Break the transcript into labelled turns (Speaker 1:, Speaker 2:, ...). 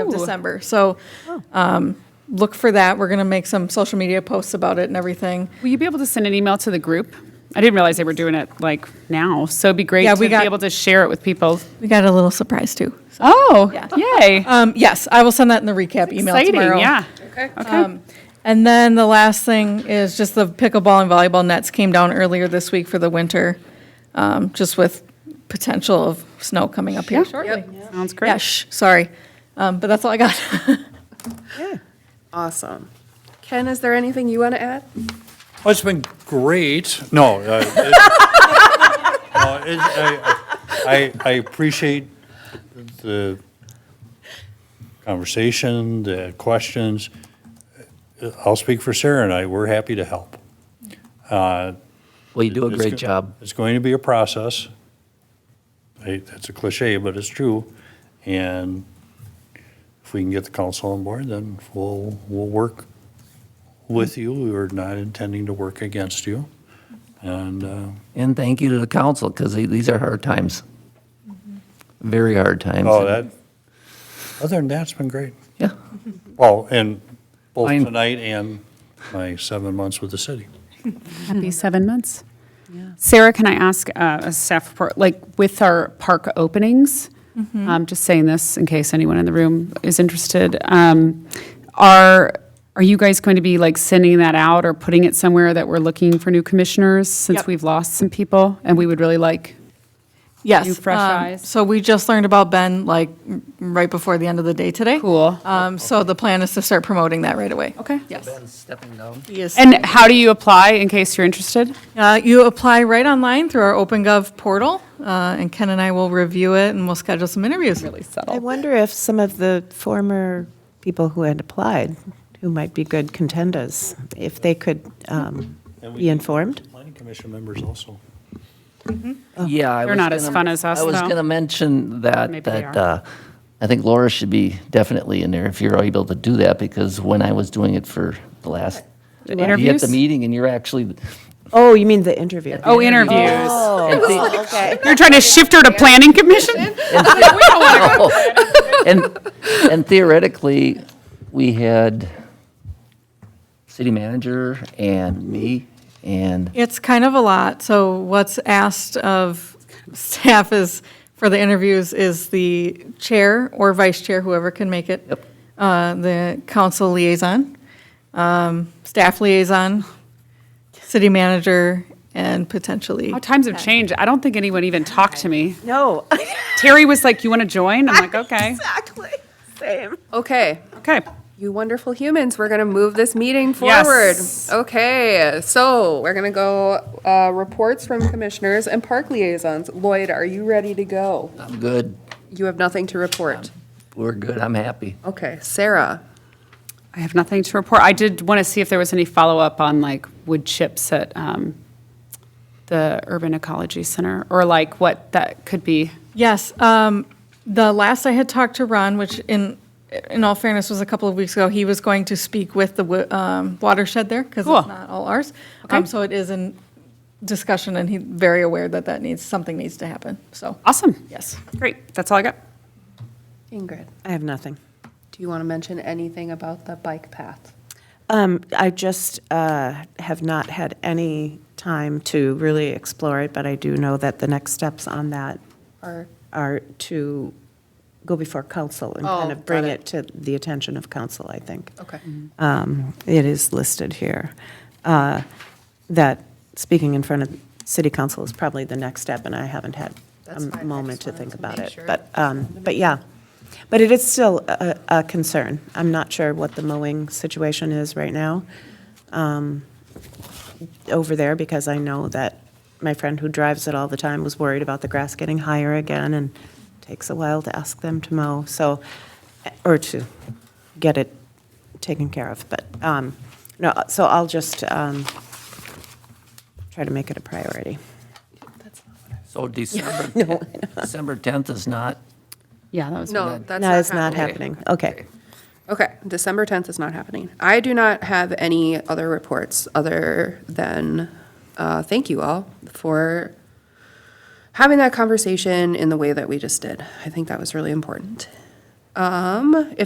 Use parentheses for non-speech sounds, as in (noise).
Speaker 1: of December. So um, look for that. We're going to make some social media posts about it and everything.
Speaker 2: Will you be able to send an email to the group? I didn't realize they were doing it like now, so it'd be great
Speaker 1: Yeah,
Speaker 2: to
Speaker 1: we got-
Speaker 2: be able to share it with people.
Speaker 1: We got a little surprise too.
Speaker 2: Oh,
Speaker 1: Yeah.
Speaker 2: (laughs) yay!
Speaker 1: Um, Yes, I will send that in the recap email
Speaker 2: Exciting,
Speaker 1: tomorrow.
Speaker 2: yeah. Okay. Okay.
Speaker 1: Um, And then the last thing is just the pickleball and volleyball nets came down earlier this week for the winter, um, just with potential of snow coming up here
Speaker 2: Yeah.
Speaker 1: shortly.
Speaker 2: Sounds
Speaker 1: Yeah,
Speaker 2: great.
Speaker 1: shh, sorry. Um, But that's all I got.
Speaker 3: Awesome. Ken, is there anything you want to add?
Speaker 4: Oh, it's been great. No. uh, it- (laughs) no, it- I I- I appreciate the conversation, the questions. I'll speak for Sarah and I, we're happy to help. Uh,
Speaker 5: Well, you do a
Speaker 4: It's
Speaker 5: great
Speaker 4: go-
Speaker 5: job.
Speaker 4: It's going to be a process. I- That's a cliche, but it's true. And if we can get the council on board, then we'll, we'll work with you. We are not intending to work against you. And uh,
Speaker 5: And thank you to the council, because these are hard times. Mm-hmm. Very hard times.
Speaker 4: Oh, that, other than that, it's been great.
Speaker 5: Yeah.
Speaker 4: Well, and both
Speaker 5: Fine.
Speaker 4: tonight and my seven months with the city.
Speaker 2: Happy seven months. Sarah, can I ask uh, a staff report, like with our park openings? Um, just saying this in case anyone in the room is interested. Um, are are you guys going to be like sending that out or putting it somewhere that we're looking for new commissioners since
Speaker 1: Yep.
Speaker 2: we've lost some people and we would really like
Speaker 1: Yes.
Speaker 2: New fresh
Speaker 1: um,
Speaker 2: eyes.
Speaker 1: So we just learned about Ben like m- right before the end of the day today.
Speaker 2: Cool.
Speaker 1: Um, So the plan is to start promoting that right away.
Speaker 2: Okay.
Speaker 1: Yes.
Speaker 5: Stepping down.
Speaker 1: He is-
Speaker 2: And how do you apply in case you're interested?
Speaker 1: Uh, You apply right online through our OpenGov portal, uh, and Ken and I will review it, and we'll schedule some interviews.
Speaker 2: Really
Speaker 6: I
Speaker 2: subtle.
Speaker 6: wonder if some of the former people who had applied, who might be good contendas, if they could um,
Speaker 4: And we-
Speaker 6: be informed?
Speaker 4: Planning commission members also.
Speaker 5: Yeah. I
Speaker 2: They're
Speaker 5: was
Speaker 2: not as
Speaker 5: gonna-
Speaker 2: fun as us,
Speaker 5: I was
Speaker 2: though.
Speaker 5: going to mention
Speaker 2: Maybe
Speaker 5: that,
Speaker 2: they
Speaker 5: that,
Speaker 2: are.
Speaker 5: uh, I think Laura should be definitely in there if you're able to do that, because when I was doing it for the last,
Speaker 2: Doing
Speaker 5: you at
Speaker 2: interviews?
Speaker 5: the meeting and you're actually. (laughs)
Speaker 6: Oh, you mean the interview?
Speaker 2: Oh, interviews.
Speaker 5: and thi-
Speaker 6: (laughs)
Speaker 2: You're trying to shift her to planning commission? (laughs)
Speaker 5: oh, And, and theoretically, we had city manager and me and
Speaker 1: It's kind of a lot, so what's asked of staff is, for the interviews, is the chair or vice chair, whoever can make it.
Speaker 5: Yep.
Speaker 1: Uh, The council liaison, um, staff liaison, city manager, and potentially.
Speaker 2: How Oh, times have changed. I don't think anyone even talked to me.
Speaker 6: No,
Speaker 2: Terry was like, "You want to join?" I'm like, "Okay,
Speaker 6: exactly, same.
Speaker 3: Okay,
Speaker 2: okay."
Speaker 3: you wonderful humans, we're going to move this meeting
Speaker 2: Yes.
Speaker 3: forward. Okay, so we're going to go uh, reports from commissioners and park liaisons. Lloyd, are you ready to go?
Speaker 5: I'm good.
Speaker 3: You have nothing to report.
Speaker 5: We're good. I'm happy.
Speaker 3: Okay, Sarah,
Speaker 2: I have nothing to report. I did want to see if there was any follow up on like wood chips at um, the Urban Ecology Center, or like what that could be.
Speaker 1: Yes, um, the last I had talked to Ron, which in, in all fairness was a couple of weeks ago, he was going to speak with the wa- um, watershed there, because
Speaker 2: Cool.
Speaker 1: it's not all ours. Um,
Speaker 2: Okay.
Speaker 1: So it is in discussion, and he's very aware that that needs, something needs to happen, so,
Speaker 2: Awesome.
Speaker 1: yes.
Speaker 2: Great. That's all I got.
Speaker 3: Ingrid,
Speaker 6: I have nothing.
Speaker 3: do you want to mention anything about the bike path?
Speaker 6: Um, I just uh, have not had any time to really explore it, but I do know that the next steps on that
Speaker 3: Or,
Speaker 6: are to go before council and
Speaker 3: Oh,
Speaker 6: kind
Speaker 3: got
Speaker 6: of bring
Speaker 3: it.
Speaker 6: it to the attention of council, I think.
Speaker 3: okay,
Speaker 6: um, it is listed here, uh, that speaking in front of city council is probably the next step, and I haven't had
Speaker 3: That's fine. I
Speaker 6: a
Speaker 3: just
Speaker 6: moment to
Speaker 3: wanted
Speaker 6: think
Speaker 3: to
Speaker 6: about
Speaker 3: make
Speaker 6: it.
Speaker 3: sure.
Speaker 6: But, um, but yeah, but it is still a, a concern. I'm not sure what the mowing situation is right now um, over there, because I know that my friend who drives it all the time was worried about the grass getting higher again, and takes a while to ask them to mow, so, or to get it taken care of. But, um, no, so I'll just um, try to make it a priority.
Speaker 5: So December, December 10th is not,
Speaker 2: Yeah, that was
Speaker 3: no,
Speaker 2: good.
Speaker 3: that's
Speaker 6: No, it's not
Speaker 3: happening.
Speaker 6: happening. Okay.
Speaker 3: Okay, December 10th is not happening. I do not have any other reports other than uh, thank you all for having that conversation in the way that we just did. I think that was really important. Um,